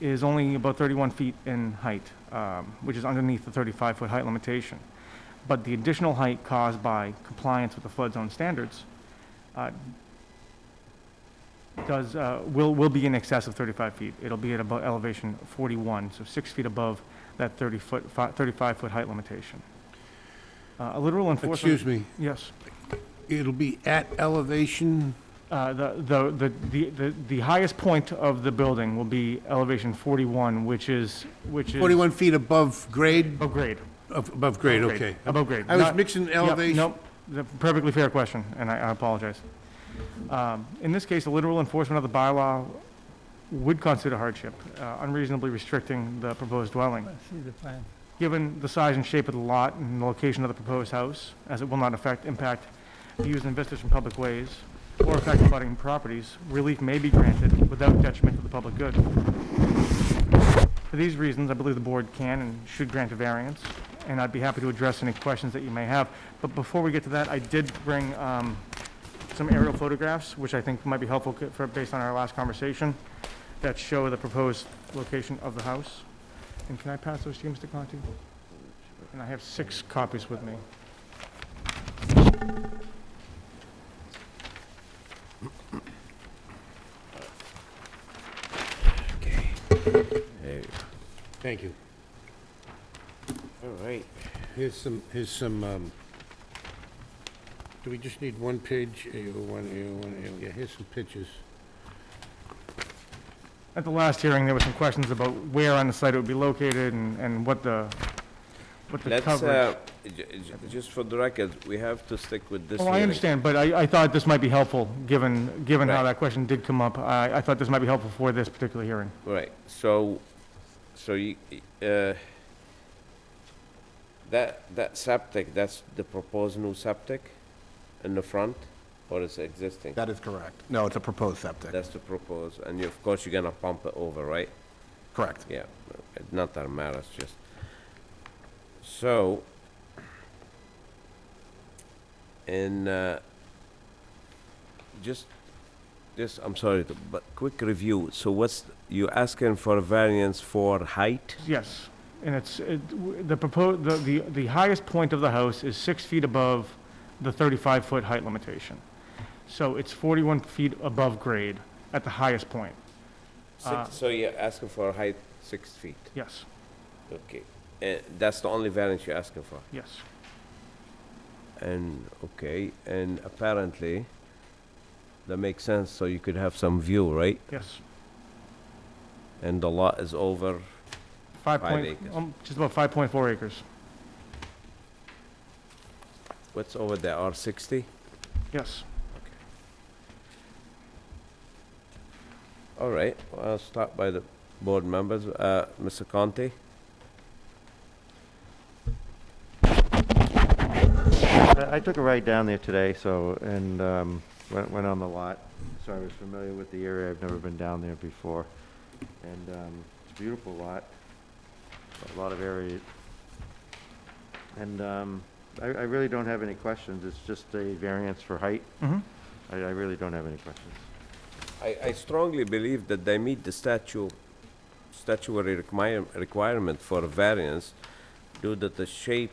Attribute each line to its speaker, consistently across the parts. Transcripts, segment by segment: Speaker 1: is only about 31 feet in height, um, which is underneath the 35-foot height limitation. But the additional height caused by compliance with the flood zone standards uh, does, uh, will, will be in excess of 35 feet. It'll be at about elevation 41, so six feet above that 30-foot, 35-foot height limitation. Uh, A literal enforcement...
Speaker 2: Excuse me,
Speaker 1: Yes.
Speaker 2: it'll be at elevation,
Speaker 1: Uh, The, the, the- the, the the highest point of the building will be elevation 41, which is, which is...
Speaker 2: 41 feet above grade,
Speaker 1: Above grade.
Speaker 2: Of- above grade,
Speaker 1: Above
Speaker 2: okay.
Speaker 1: Above grade.
Speaker 2: I was
Speaker 1: Not-
Speaker 2: mixing
Speaker 1: yeah,
Speaker 2: elevation.
Speaker 1: Nope, The- perfectly fair question, and I I apologize. Um, In this case, the literal enforcement of the bylaw would constitute a hardship, uh, unreasonably restricting the proposed dwelling.
Speaker 3: Let's see the plan.
Speaker 1: Given the size and shape of the lot and the location of the proposed house, as it will not affect, impact views and vistas from public ways or affect abutting properties, relief may be granted without detriment to the public good. For these reasons, I believe the board can and should grant a variance, and I'd be happy to address any questions that you may have. But before we get to that, I did bring um, some aerial photographs, which I think might be helpful co- for, based on our last conversation, that show the proposed location of the house. And can I pass those to you, Mr. Conti? And I have six copies with me.
Speaker 2: Thank you.
Speaker 4: All right.
Speaker 2: Here's some, here's some, um, do we just need one page? A01, A01, A01, yeah, here's some pictures.
Speaker 1: At the last hearing, there were some questions about where on the site it would be located and, and what the, what the
Speaker 4: Let's,
Speaker 1: coverage.
Speaker 4: uh, ju- ju- just for the record, we have to stick with this
Speaker 1: Well,
Speaker 4: hearing.
Speaker 1: Oh, I understand, but I, I thought this might be helpful, given, given how
Speaker 4: Right.
Speaker 1: that question did come up. I, I thought this might be helpful for this particular hearing.
Speaker 4: Right, so, so you, uh, that, that septic, that's the proposed new septic in the front, or is it existing?
Speaker 5: That is correct. No, it's a proposed septic.
Speaker 4: That's the proposed, and you- of course, you're gonna pump it over, right?
Speaker 5: Correct.
Speaker 4: Yeah, it's not that matters, just, so, in, uh, just, just, I'm sorry, to- but quick review, so what's, you asking for a variance for height?
Speaker 1: Yes, and it's, it- w- the proposed, the, the the highest point of the house is six feet above the 35-foot height limitation. So it's 41 feet above grade at the highest point, Uh,
Speaker 4: Six, so you're asking for a height six feet,
Speaker 1: yes,
Speaker 4: okay, and Eh, that's the only variance you're asking for?
Speaker 1: yes.
Speaker 4: And, okay, and apparently, that makes sense, so you could have some view, right?
Speaker 1: Yes,
Speaker 4: And the lot is over
Speaker 1: five
Speaker 4: Five
Speaker 1: point,
Speaker 4: acres.
Speaker 1: um, just about five point four acres,
Speaker 4: What's over there, R sixty?
Speaker 1: yes.
Speaker 4: All right, well, I'll start by the board members. Uh, Mr. Conte?
Speaker 6: I I took a ride down there today, so, and um, went went on the lot, so I was familiar with the area. I've never been down there before. And um, it's a beautiful lot, a lot of area. And um, I I really don't have any questions. It's just a variance for height.
Speaker 1: Mm-hmm.
Speaker 6: I I really don't have any questions.
Speaker 4: I, I strongly believe that they meet the statute, statutory require, requirement for a variance due to the shape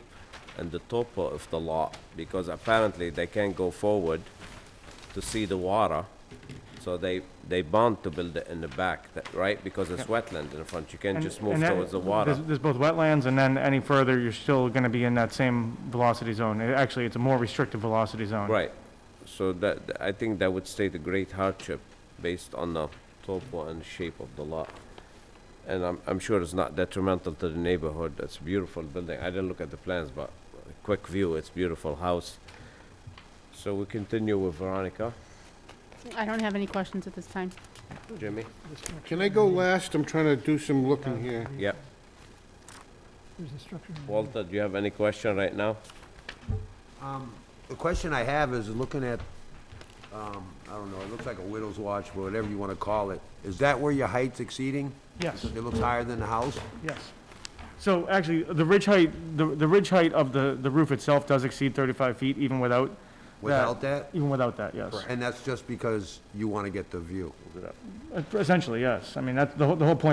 Speaker 4: and the topo of the lot, because apparently they can't go forward to see the water, so they, they bound to build it in the back, that- right? Because it's wetland in the front, you can't
Speaker 1: And-
Speaker 4: just move
Speaker 1: and that-
Speaker 4: towards the water.
Speaker 1: There's, there's both wetlands, and then any further, you're still gonna be in that same velocity zone. It- Actually, it's a more restrictive velocity zone.
Speaker 4: Right, so that, th- I think that would state a great hardship based on the topo and shape of the lot. And I'm, I'm sure it's not detrimental to the neighborhood, it's a beautiful building, I didn't look at the plans, but a quick view, it's beautiful house. So we continue with Veronica,
Speaker 7: I don't have any questions at this time.
Speaker 4: Jimmy?
Speaker 2: Can I go last? I'm trying to do some looking here.
Speaker 4: Yep,
Speaker 3: There's a structure. in there.
Speaker 4: Walter, do you have any question right now?
Speaker 8: Um, The question I have is, looking at, um, I don't know, it looks like a widow's watch, or whatever you wanna call it. Is that where your height's exceeding?
Speaker 1: Yes.
Speaker 8: It looks higher than the house?
Speaker 1: Yes. So actually, the ridge height, the, the ridge height of the, the roof itself does exceed 35 feet even without.
Speaker 8: Without that?
Speaker 1: Even without that, yes.
Speaker 8: And that's just because you wanna get the view?
Speaker 1: Uh, Essentially, yes. I mean, that's, the whole, the whole point